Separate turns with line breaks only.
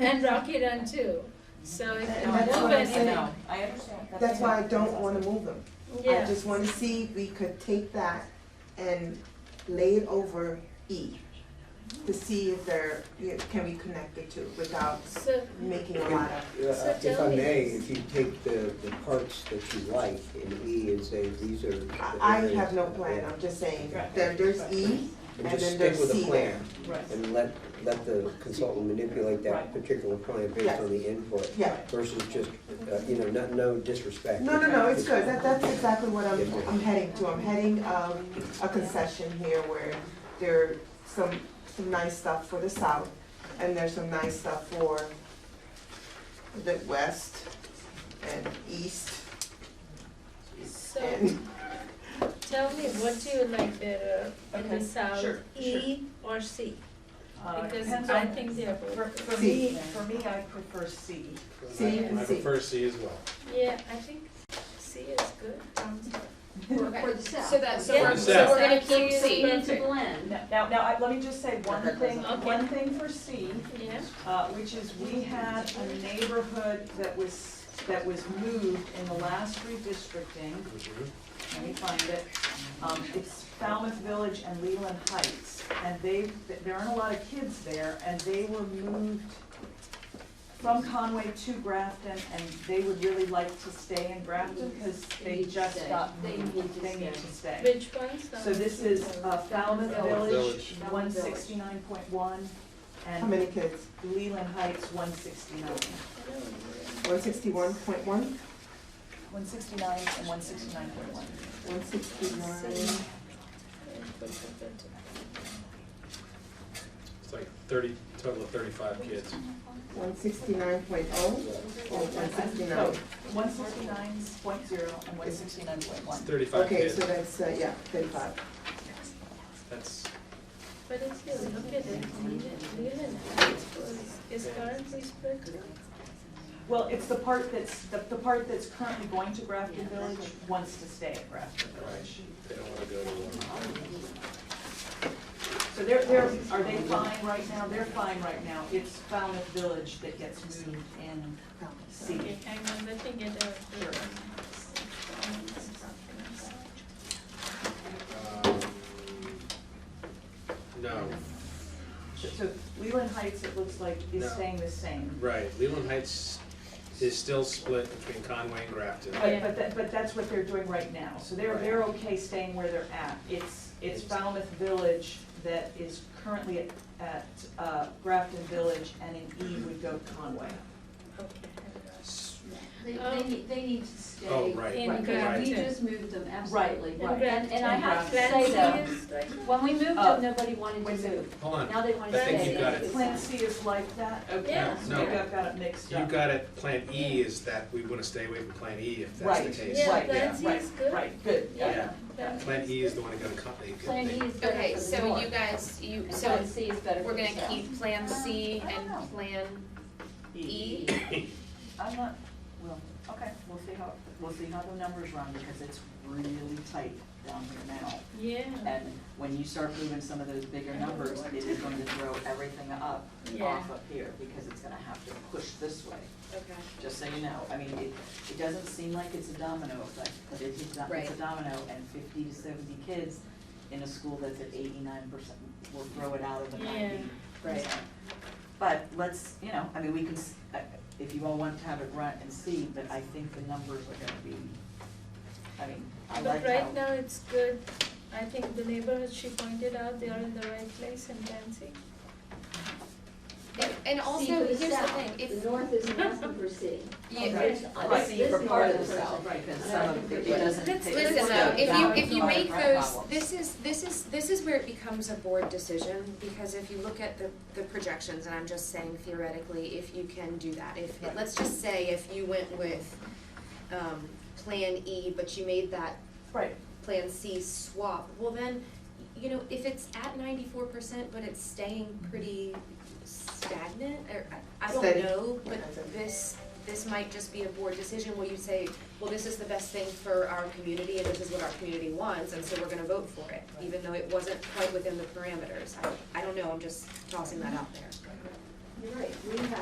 and Rocky Run too. So if
And
you
that's
move
what I'm
it,
saying.
No, I understand.
That's why I don't wanna move them. I
yeah,
just wanna see if we could take that and lay it over E to see if there, can we connect the two without
so,
making a lot of,
Yeah,
So
If
tell
I
me.
may, if you take the, the parts that you like in E and say, these are. the
I, I
areas
have no
that-
plan, I'm just saying,
Right.
there, there's E
And
and then
just stick
there's
with
C
a plan
there.
Right.
and let, let the consultant manipulate that
Right.
particular plan based
Yes.
on the input
Yeah,
versus just, uh, you know, no, no disrespect.
no, no, no, it's good, that, that's exactly what I'm,
Yeah.
I'm heading to, I'm heading, um, a concession here where there are some, some nice stuff for the south, and there's some nice stuff for the west and east
so
and
tell me, what do you like better in the
Okay,
south,
sure,
E or C?
Uh, it
Because
depends
I
on-
think they are both.
For,
good.
for me, for me, I prefer C.
C and
I
C.
prefer C as well.
Yeah, I think C is good, Um, sounds good.
Okay.
For the south.
So that, so
Yeah.
we're,
For the
so
south.
we're gonna
South
keep
is
C.
perfect.
It's a blend.
Now, now, I, let me just say one
Okay.
thing,
Okay.
one thing for C,
Yeah,
uh, which is we had a neighborhood that was, that was moved in the last redistricting. Let me find it. Um, it's Falmouth Village and Leland Heights, and they, there aren't a lot of kids there, and they were moved from Conway to Grafton, and they would really like to stay in Grafton, because
They
they
need to
just
stay.
got
They
moved.
need to
They need
stay.
to stay.
which ones?
So this is uh, Falmouth
Falmouth
Village,
Village.
one sixty-nine point one,
how
and
many kids?
Leland Heights, one sixty-nine.
One sixty-one point one,
One sixty-nine and one sixty-nine point one.
one sixty-one,
It's like thirty, total of thirty-five kids.
one sixty-nine point oh, or one sixty-nine?
One sixty-nine point zero and one sixty-nine point
It's
one.
thirty-five
Okay,
kids.
so that's, uh, yeah, thirty-five.
That's,
But if you look at it, Leland Heights was, is currently split.
Well, it's the part that's, the, the part that's currently going to Grafton Village wants to stay at Grafton Village.
they don't wanna go to one.
So they're, they're, are they fine right now? They're fine right now. It's Falmouth Village that gets moved in C.
Okay, hang on, let me get out.
Sure.
Um, No,
So Leland Heights, it looks like, is
No.
staying the same.
right, Leland Heights is still split between Conway and Grafton.
But, but that, but that's what they're doing right now, so they're,
Right.
they're okay staying where they're at. It's, it's Falmouth Village that is currently at, at, uh, Grafton Village, and in E would go Conway.
S-
They,
Oh.
they need, they need to stay.
Um, Oh, right.
In
Right.
Yeah, we
Grafton.
just moved them, absolutely. And, and I
And
have to
Grafton
say though,
is right now?
when we moved
Uh,
them, nobody wanted
wait a
to
second.
move.
Hold on,
Now they want
I
to stay.
think you got it.
Plan C is like that? Okay,
Yeah.
so
No.
maybe I've got it mixed
you
up.
got it, Plan E is that we wanna stay away from Plan E if that's the
Right.
case.
Yeah,
Right,
Plan C
right,
is good.
Right, good.
Yeah,
Plan
Plan
C
E is
good.
the one that got a company.
Plan E is better
Okay,
for the
so
north,
you guys, you,
and
so
Plan C is better for
we're
the
gonna
south.
keep Plan C
I don't know.
and Plan E?
I'm not, well, okay, we'll see how, we'll see how the numbers run, because it's really tight down here now.
Yeah,
And when you start moving some of those bigger numbers, it is going to throw everything up
Yeah.
off up here, because it's gonna have to push this way,
Okay.
just so you know. I mean, it, it doesn't seem like it's a domino effect, but it is, not- it's a
Right.
domino, and fifty to seventy kids in a school that's at eighty-nine percent will throw it out of the ninety.
Right.
But let's, you know, I mean, we can, s- uh, if you all want to have it run and see, but I think the numbers are gonna be, I mean, I
but
like how.
right now it's good. I think the neighborhood she pointed out, they are in the right place in Plan C.
And- And also,
See for
here's the
south.
thing, if,
The north isn't asking for C.
Yeah,
Okay.
Right,
This-
see, for
this
part of the
north person-
south, right, because
And
some
I
of
think
it
it
doesn't.
Let's
take-
It's
listen
one
though,
of the
if you, if
It's
you
one of
make
our
those,
problems.
this is, this is, this is where it becomes a board decision, because if you look at the, the projections, and I'm just saying theoretically, if you can do that, if,
Right.
let's just say if you went with, um, Plan E, but you made that
Right,
Plan C swap, well then, you know, if it's at ninety-four percent, but it's staying pretty stagnant, or, I- I
Steady.
don't know, but
Okay.
this, this might just be a board decision where you say, well, this is the best thing for our community, and this is what our community wants, and so we're gonna vote for it, even though it wasn't quite within the parameters, I, I don't know, I'm just tossing that out there.
You're right, we have